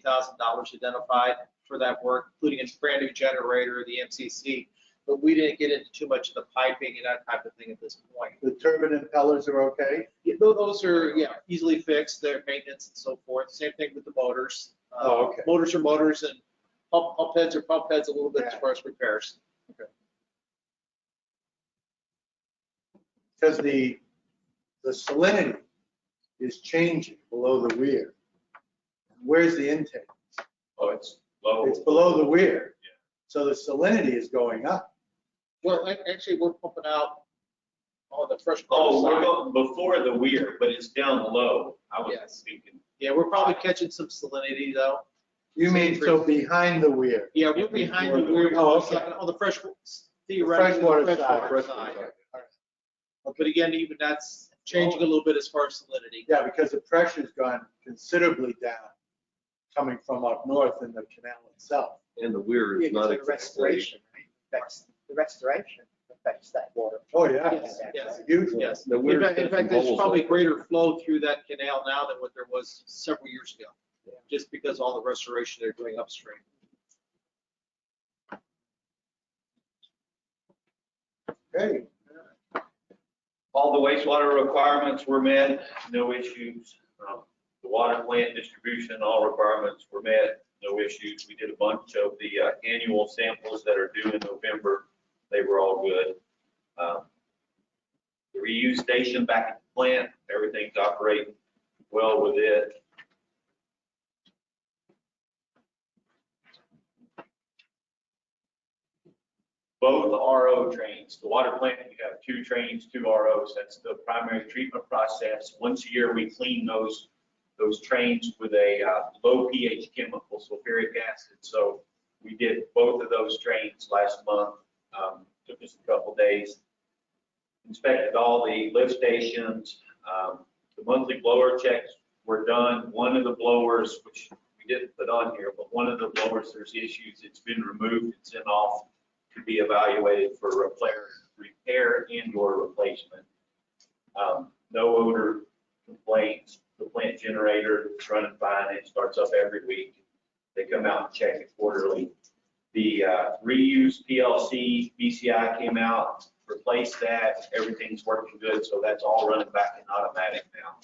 thousand dollars identified for that work, including a brand new generator, the MCC. But we didn't get into too much of the piping and that type of thing at this point. The turbine impellers are okay? Yeah, tho- those are, yeah, easily fixed, their maintenance and so forth. Same thing with the motors. Uh, Oh, okay. Motors are motors and pump, pump heads are pump heads a little bit as Yeah. far as repairs. Because the, the salinity is changing below the weir. Where's the intake? Oh, it's low. It's below the weir. So the salinity is going up. Well, ac- actually, we're pumping out on the fresh Oh, water we're side. going before the weir, but it's down low. I was Yes. thinking, Yeah, we're probably catching some salinity though. You mean so behind the weir? Yeah, we're behind the, we're Oh, okay. on the fresh, The theoretically, Freshwater the freshwater side. side. But again, even that's changing a little bit as far as salinity. Yeah, because the pressure's gone considerably down coming from up north in the canal itself. And the weir Yeah, is not. because of the restoration, right? Affects- The restoration affects that water. Oh, yeah. Yes, yes, Hugely. yes. The In weir's fact, in got some fact, there's holes in probably it. greater flow through that canal now than what there was several years ago, just because all the restoration they're doing upstream. Okay. All the wastewater requirements were met, no issues. Um, The water plant distribution, all requirements were met, no issues. We did a bunch of the uh, annual samples that are due in November. They were all good. Um, The reuse station back at the plant, everything's operating well with it. both RO trains, the water plant, you have two trains, two ROs, that's the primary treatment process. Once a year, we clean those, those trains with a uh, low pH chemical, sulfuric acid. So we did both of those trains last month, Um, took us a couple days. Inspected all the lift stations, Um, the monthly blower checks were done. One of the blowers, which we didn't put on here, but one of the blowers, there's issues, it's been removed, it's in off to be evaluated for repair, repair and or replacement. Um, No odor complaints, the plant generator is running fine, it starts up every week. They come out and check it quarterly. The uh, reuse PLC, BCI came out, replaced that, everything's working good, so that's all running back in automatic now.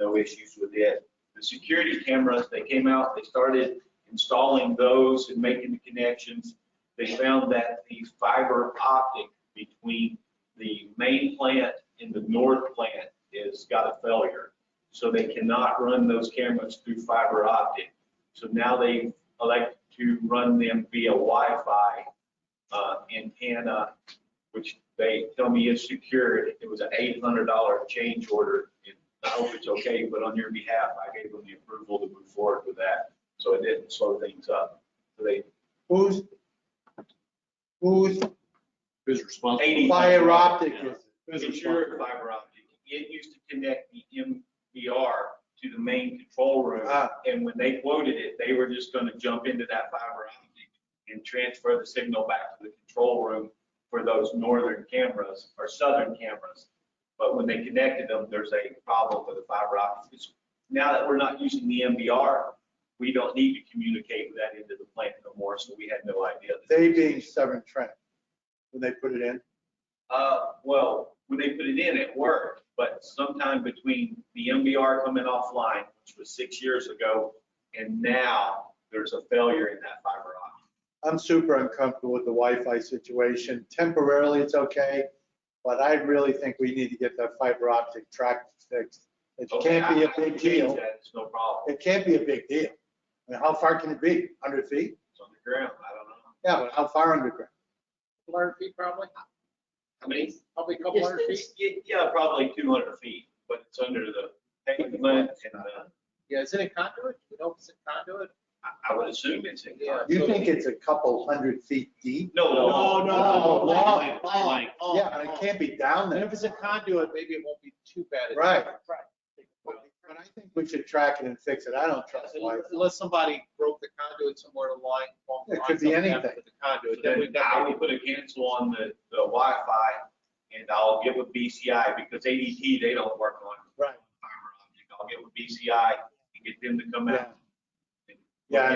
No issues with it. The security cameras, they came out, they started installing those and making the connections they found that the fiber optic between the main plant and the north plant has got a failure. So they cannot run those cameras through fiber optic. So now they elect to run them via Wi-Fi uh, antenna, which they tell me is secured. It was an $800 change order. And I hope it's okay, but on your behalf, I gave them the approval to move forward with that. So it didn't slow things up. So they Who's, whose Who's responsible? 80. fire optic is? it? It's your fiber optic. It used to connect the MBR to the main control room. Ah. And when they quoted it, they were just gonna jump into that fiber optic and transfer the signal back to the control room for those northern cameras or southern cameras. But when they connected them, there's a problem with the fiber optic. It's- Now that we're not using the MBR, we don't need to communicate with that into the plant no more, so we had no idea. that- They being Severn Trent, when they put it in. Uh, well, when they put it in, it worked, but sometime between the MBR coming offline, which was six years ago, and now there's a failure in that fiber optic. I'm super uncomfortable with the Wi-Fi situation. Temporarily, it's okay, but I really think we need to get that fiber optic track fixed. It can't be Okay, a I- I big can change deal. that, It's no problem. It can't be a big deal. I mean, how far can it be? 100 feet? It's on the ground. I don't know. Yeah, but how far underground? Hundred feet probably? How many? Probably a couple hundred feet. Yeah, probably 200 feet, but it's under the pavement and uh, Yeah, is it a conduit? We know if it's a conduit. I- I would assume it's in. Yeah. You think it's a couple hundred feet deep? No, Oh, no, Oh, no, Oh, no, long, like- long, Yeah, but it long. can't be down And there. if it's a conduit, maybe it won't be too bad. Right. Well, But I think we should track it and fix it. I don't trust Wi-Fi. Unless somebody broke the conduit somewhere to line. along the It line, could be something happened anything. with The conduit, then Then we've I got will put a cancel on the, the Wi-Fi and I'll get with BCI because ADT, they don't work on. Right. fiber optic. I'll get with BCI and get them to come out.